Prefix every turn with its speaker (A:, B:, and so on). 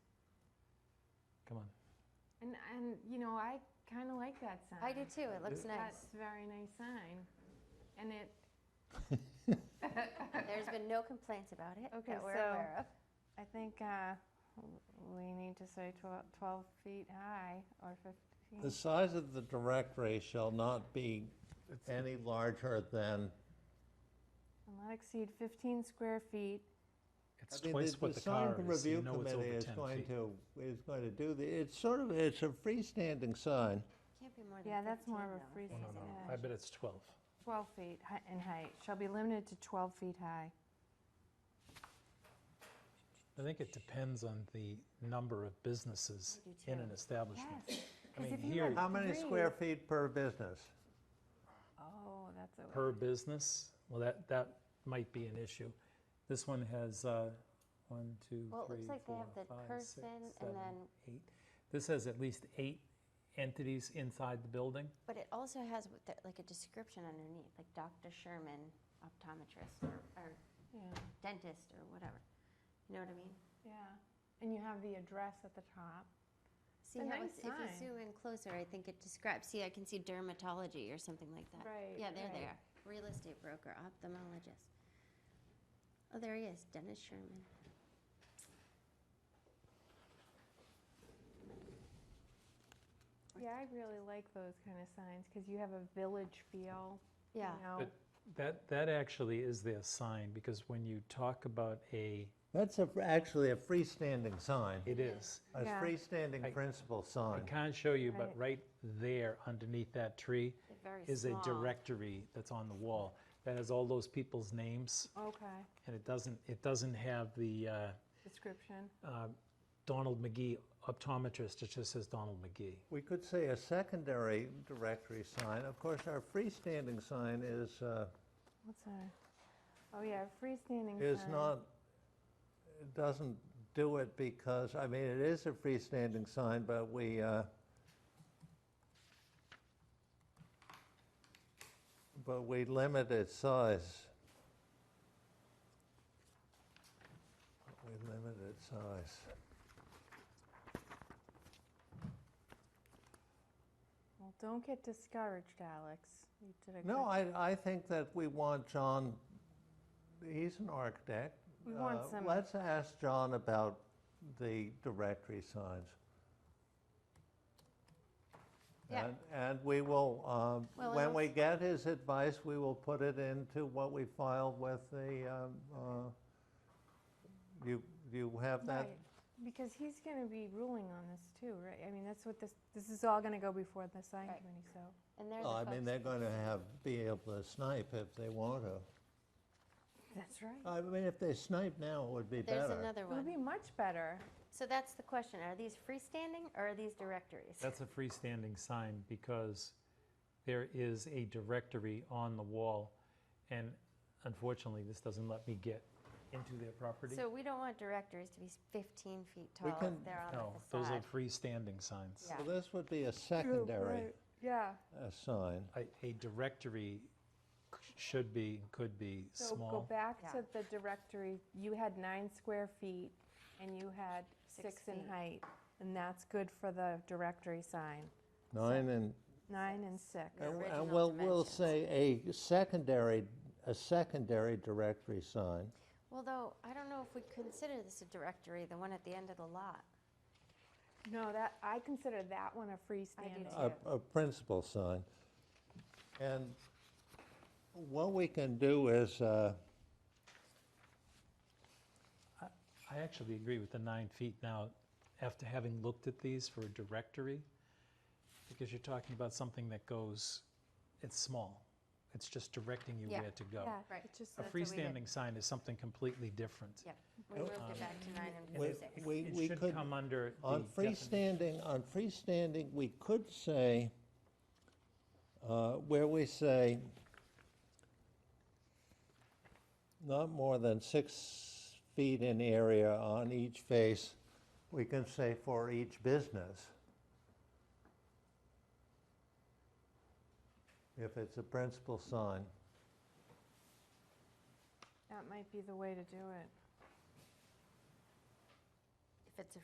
A: And, and, you know, I kind of like that sign.
B: I do too, it looks
A: That's
B: nice.
A: a very nice sign. And it,
B: There's been no complaints about it
A: Okay,
B: that we're
A: so-
B: aware of.
A: I think uh, we need to say twel- 12 feet high or 15.
C: The size of the directory shall not be any larger than,
A: And not exceed 15 square feet.
C: I
D: It's
C: mean,
D: twice what the car is. You know it's over
C: The sign review
D: ten
C: committee is going
D: feet.
C: to, is going to do, the. it's sort of, it's a freestanding sign.
B: Can't be more than 15
A: Yeah, that's more of a
B: though,
A: free
B: I think, isn't it?
D: I bet it's twelve.
A: 12 feet hi- in height, shall be limited to 12 feet high.
D: I think it depends on the number of businesses
B: I do
D: in
B: too.
D: an establishment.
A: Yes.
D: I
A: 'cause
D: mean,
A: if you
D: here,
A: had-
C: How many square feet per business?
A: Oh, that's a.
D: per business, well, that, that might be an issue. This one has, uh, one, two,
B: Well, it looks
D: three,
B: like they
D: four,
B: have the
D: five, six,
B: person and
D: seven,
B: then-
D: eight. This has at least eight entities inside the building.
B: But it also has what the- like a description underneath, like Dr. Sherman, optometrist or or
A: Yeah,
B: dentist or whatever. You know what I mean?
A: yeah. And you have the address at the top.
B: See
A: a
B: how
A: nice
B: it's, if you
A: sign.
B: zoom in closer, I think it describes, see, I can see dermatology or something like that.
A: Right,
B: Yeah, there they
A: right.
B: are. Real estate broker, ophthalmologist. Oh, there he is, Dennis Sherman.
A: Yeah, I really like those kind of signs because you have a village feel. you
B: Yeah.
A: know.
D: But that, that actually is their sign, because when you talk about a,
C: That's a, actually a freestanding sign,
D: it is.
C: a
A: Yeah.
C: freestanding
D: I-
C: principal
D: I
C: sign.
D: can't show you, but
A: Right.
D: right there underneath that tree
B: They're very
D: is a
B: small.
D: directory that's on the wall that has all those people's names,
A: Okay,
D: and it doesn't, it doesn't have the uh,
A: description.
D: uh, Donald McGee optometrist, it just says Donald McGee.
C: We could say a secondary directory sign. Of course, our freestanding sign is, uh,
A: What's that? Oh, yeah, freestanding sign.
C: is not, it doesn't do it because, I mean, it is a freestanding sign, but we, uh, but we limit its size. We limit its size.
A: Well, don't get discouraged, Alex. You did a
C: No,
A: good-
C: I, I think that we want John, he's an architect.
A: We want
C: Uh,
A: some-
C: Let's ask John about the directory signs.
B: Yeah.
C: And, and we will, um,
B: Well,
C: when
B: and
C: we
B: also-
C: get his advice, we will put it into what we file with the, um, uh, you, you have that?
A: Right, Because he's going to be ruling on this too, right? I mean, that's what this, this is all going to go before the sign
B: Right.
A: committee, so.
B: And they're the
C: Well, Oh, I mean,
B: folks-
C: they're going to have, be able to snipe if they want to.
A: That's right.
C: I mean, if they snipe now, it would be better.
B: There's another
A: It would
B: one.
A: be much better.
B: So that's the question. Are these freestanding or are these directories?
D: That's a freestanding sign because there is a directory on the wall, and unfortunately, this doesn't let me get into their property.
B: So we don't want directories to be 15 feet
C: We
B: tall if
C: can-
B: they're on
D: No,
B: the
D: those are
B: facade.
D: freestanding signs.
B: uh, Yeah.
C: Well, this would be a secondary
A: Yeah.
C: uh, sign.
D: A, a directory c- should be, could be
A: So go
D: small.
A: back
B: Yeah.
A: to the directory. You had nine square feet and you had
B: Six
A: six in
B: feet.
A: height. And that's good for the directory sign,
C: Nine and,
A: nine and six.
B: Yeah.
C: and-
B: original
C: and we'll, we'll
B: dimensions.
C: say a secondary, a secondary directory sign.
B: Well, though, I don't know if we consider this a directory, the one at the end of the lot.
A: No, that, I consider that one a freestanding.
B: too.
C: a, a principal sign. And what we can do is, uh,
D: I actually agree with the nine feet now, after having looked at these for a directory, because you're talking about something that goes, it's small. It's just directing you
B: Yeah.
D: where to go.
A: Yeah,
B: Right.
A: it just,
D: A
B: That's what we did.
D: freestanding sign is something completely different.
B: Yep, we moved it back to nine
C: we,
B: and six.
C: we
D: It
C: we
D: should
C: could,
D: come under the
C: on
D: definition.
C: freestanding, on freestanding, we could say, uh, where we say, not more than six feet in area on each face, we can say for each business. If it's a principal sign.
A: that might be the way to do it.
B: If it's a